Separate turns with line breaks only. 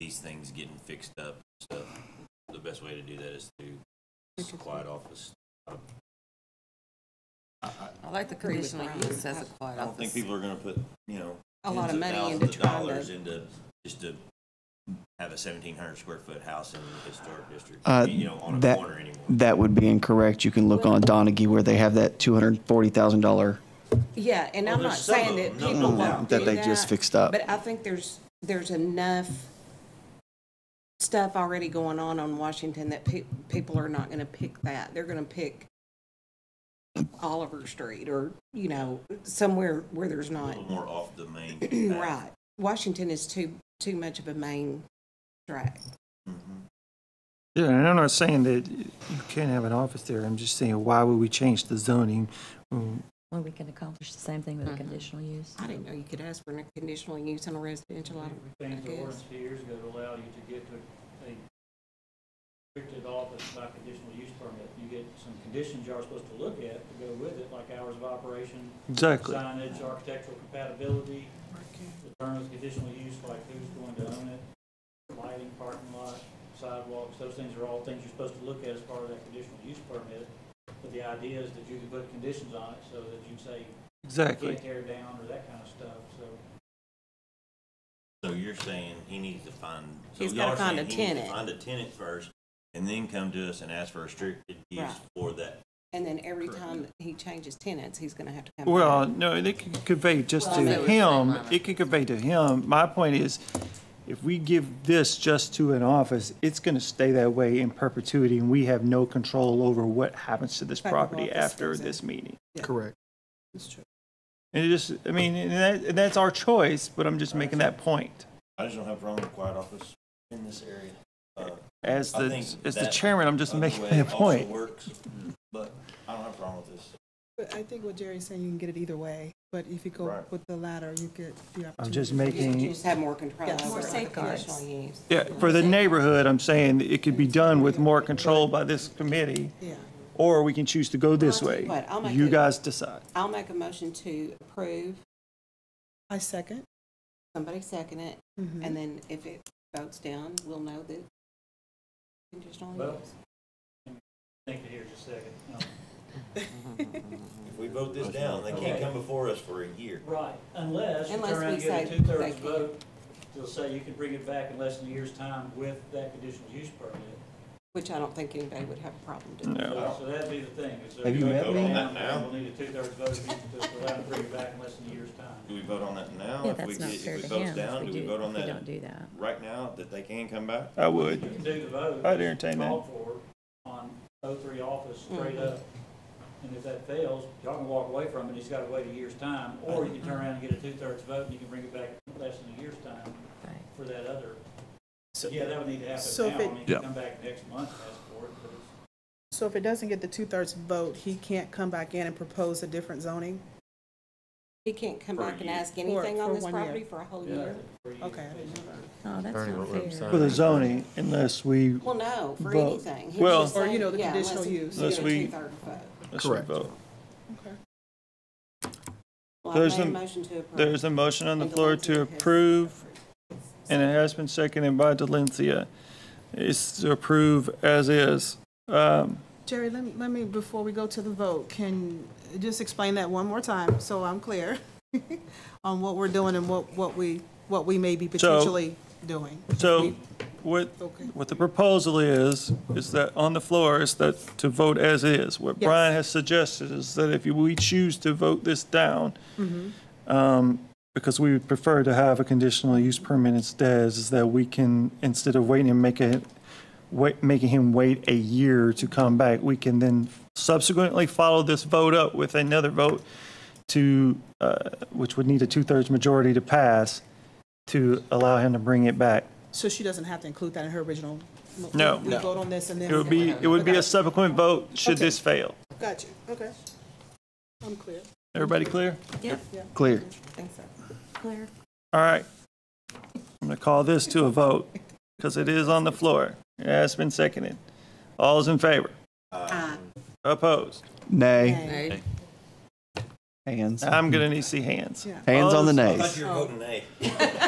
these things getting fixed up and stuff, the best way to do that is through this quiet office.
I like the
Agree with
conditional
Brian.
use as a
I
quiet
don't think
office.
people are gonna put, you know,
A lot
tens
of money
thousands
into
of
trying
Dollars
to,
into, just to have a seventeen hundred square foot house in the historic district,
Uh,
you know, on a
that-
corner anymore.
That would be incorrect. You can look on Donaghy where they have that $240,000.
yeah, and
Well,
I'm not
Oh, there's some
saying
of
that
them, no,
people
no
won't
doubt.
do
That they just fixed up.
But I think there's, there's enough stuff already going on on Washington that pe- people are not gonna pick that. They're gonna pick Oliver Street or, you know, somewhere where there's
A
not,
little more off the main. path.
right. Washington is too, too much of a main track.
Yeah, and I'm not saying that you can't have an office there. I'm just saying, why would we change the zoning? Mm,
Well, we can accomplish the same thing with a conditional use.
I didn't know you could ask for a conditional use on a residential, I
We
I
changed the
guess.
ordinance a few years ago to allow you to get to a restricted office by conditional use permit. You get some conditions you're supposed to look at to go with it, like hours of operation,
Exactly.
signage, architectural compatibility, the terms of conditional use, like who's going to own it, lighting, parking lot, sidewalks, those things are all things you're supposed to look at as part of that conditional use permit. But the idea is that you can put conditions on it so that you say, you
Exactly.
can't tear down or that kind of stuff, so.
So you're saying he needs to find. so
He's
y'all
gotta
are
find
saying
a
he needs to
tenant.
Find a tenant first, and then come to us and ask for restricted use
Right.
for that.
And then every time that he changes tenants, he's gonna have to come back.
Well, no, they can convey just to
Well, I see what you're
him,
saying,
it can convey to him. My point is, if we give this just to an office, it's going to stay that way in perpetuity, and we have no control over what happens to this
Like the
property
office
after
goes in.
this meeting.
Correct.
And it just, I mean, and that, and that's our choice, but I'm just making that point.
I just don't have a problem with quiet office in this area. Uh,
As
I
the,
think
as the
that
chairman, I'm just
other
making
way
that
also
point.
Works, but I don't have a problem with this.
But I think what Jerry's saying, you can get it either way, but if you go
Right.
with the latter, you get the opportunity.
I'm just
for-
making.
You just have more control
Yeah,
over
more
it, the
safeguards.
conditional use.
Yeah, for the neighborhood, I'm saying it could be done with more control by this committee,
Yeah.
or we can choose to go this
Well, I'll tell
way.
you what, I'll make
You
it-
guys decide.
I'll make a motion to approve,
I second.
somebody second it,
Mhm.
and then if it votes down, we'll know that conditional
Well-
use.
Think it here just a second. Um,
If we vote this down, they can't come before us for a year.
Right, unless you
Unless
turn around
we
and get
say
a
they
two-thirds
can't.
vote, they'll say you can bring it back in less than a year's time with that conditional use permit.
Which I don't think anybody would have a problem doing.
So so that'd be the thing, is
Have
if
you
you
met
vote
me?
on that now, we'll need a two-thirds vote to allow to bring it back in less than a year's time.
Do we vote on that now?
Yeah,
If we
that's not
get-
fair
If
to
it votes
him
down, do
if we
we
do,
vote on
if we don't
that
do that.
right now, that they can come back?
I
You
would.
can do the vote.
I'd entertain that.
Call for on O three office straight up, and if that fails, y'all can walk away from it, he's gotta wait a year's time, or you can turn around and get a two-thirds vote, and you can bring it back in less than a year's time
Right.
for that other. Yeah, that would need to happen
so
now,
if
I
it-
mean, you can come back next month, ask for it, but it's.
So if it doesn't get the two-thirds vote, he can't come back in and propose a different zoning?
He can't come
For a
back and
year.
ask anything on
for
this
one year.
property for a whole year?
Okay, I didn't know that.
Oh, that's not fair.
For the zoning, unless we,
Well, no, for
Vote.
anything. He was
Well-
just
Or, you
saying,
know, the
yeah, unless
conditional
you
use.
get a
Unless we-
two-third vote.
unless we
Correct.
vote.
Okay.
Well, I
There's
made a
an-
motion to approve.
There's a motion on the
And
floor
Delancey
to
has
approve, and it has been seconded by Delencia. It's to approve as is. Um,
Jerry, let me, let me, before we go to the vote, can, just explain that one more time, so I'm clear on what we're doing and what, what we, what we may be potentially doing.
So what,
Okay.
what the proposal is, is that on the floor is that to vote as is. What
Yes.
Brian has suggested is that if we choose to vote this down,
Mm-hmm.
um, because we would prefer to have a conditional use permit instead, is that we can, instead of waiting and make it, wait, making him wait a year to come back, we can then subsequently follow this vote up with another vote to, uh, which would need a two-thirds majority to pass, to allow him to bring it back.
So she doesn't have to include that in her original? mo-
No.
We vote on this and then?
It would be, it would be a subsequent vote should this fail.
Gotcha, okay. I'm clear.
Everybody clear?
Yep,
Clear.
Claire.
All right. I'm going to call this to a vote because it is on the floor. It has been seconded. All's in favor? Opposed?
Nay.
Okay.
Hands.
I'm going to need to see hands.
Yeah.
Hands on the
Opposed?
I
nays.
Oh.
thought you were voting nay.